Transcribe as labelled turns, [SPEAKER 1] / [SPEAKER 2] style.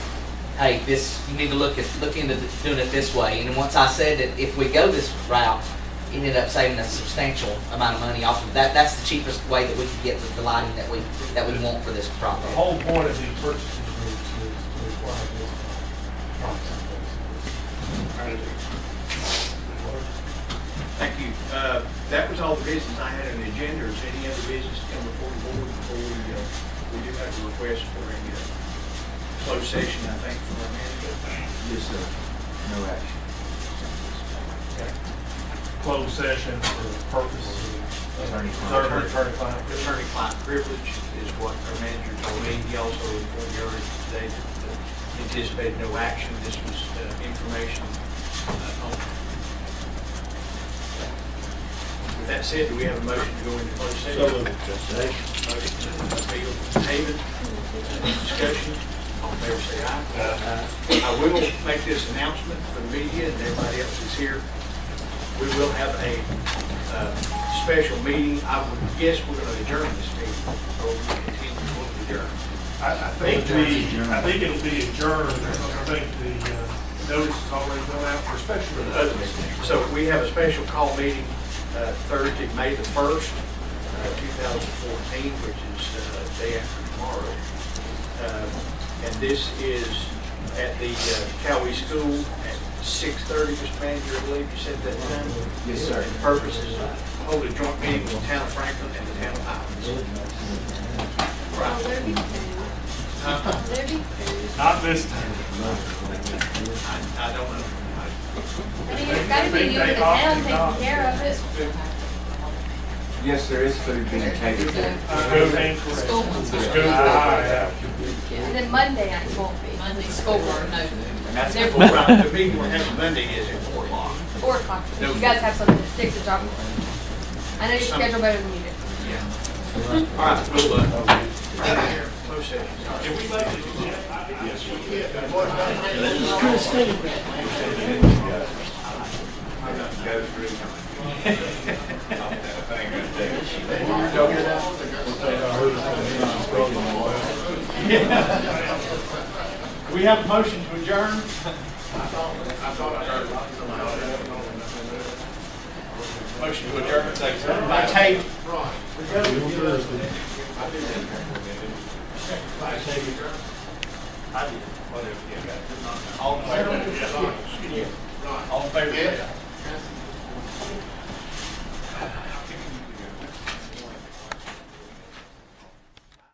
[SPEAKER 1] hey, this, you need to look at, look into th- doing it this way. And then once I said that if we go this route, it ended up saving a substantial amount of money off of that. That's the cheapest way that we could get the- the lighting that we, that we want for this
[SPEAKER 2] The
[SPEAKER 1] project.
[SPEAKER 2] whole point of these purchases is to require this process.
[SPEAKER 3] Thank you. Uh, That was all the business I had on the agenda. Is any other business to come before the board before we, uh, we do have a request for a uh, closed session, I think, for our management?
[SPEAKER 4] Yes, sir. No action.
[SPEAKER 3] Okay.
[SPEAKER 2] Closed session for purpose of
[SPEAKER 4] Attorney-client
[SPEAKER 2] preserving attorney-client privilege.
[SPEAKER 3] Attorney-client privilege is what our manager told me. He also informed you earlier today that uh, anticipated no action. This was uh, information uh, only. With that said, do we have a motion to go into closed session? Motion by Bill David, Any discussion, all in favor say aye. I will make this announcement for the media and everybody else that's here. We will have a uh, special meeting. I would guess we're going to adjourn this meeting, or we continue to adjourn.
[SPEAKER 2] I, I think the, I think it'll be adjourned, I think the uh, notice is already gone out for
[SPEAKER 3] for
[SPEAKER 2] special.
[SPEAKER 3] the other meeting. Uh, So we have a special call meeting uh, Thursday, May the 1st, uh, 2014, which is uh, day after tomorrow. Uh, And this is at the uh, Cowee School at 6:30, Mr. Manager, I believe you said that time?
[SPEAKER 4] Yes, sir.
[SPEAKER 3] And Purpose is to hold a joint meeting with the town of Franklin and the town of Highlands.
[SPEAKER 5] Oh, there be food. There be food.
[SPEAKER 2] Not this time.
[SPEAKER 3] I I don't know. I-
[SPEAKER 5] I mean, it's gotta be you and the town taking care of it.
[SPEAKER 4] Yes, there is food being catered there.
[SPEAKER 2] School. School.
[SPEAKER 5] And then Monday nights won't be.
[SPEAKER 6] Monday school board, no.
[SPEAKER 3] And that's
[SPEAKER 6] They're-
[SPEAKER 3] four o'clock. The meeting we're having Monday is at 4 o'clock.
[SPEAKER 5] Four o'clock. You guys have something at six to drop. I know your schedule better than you do.
[SPEAKER 3] Yeah. All right, we'll, uh, close session. Did we make it? We have a motion to adjourn. Motion to adjourn, second by Tate. By Tate. I did, whatever, yeah, got it. All in favor? All in favor?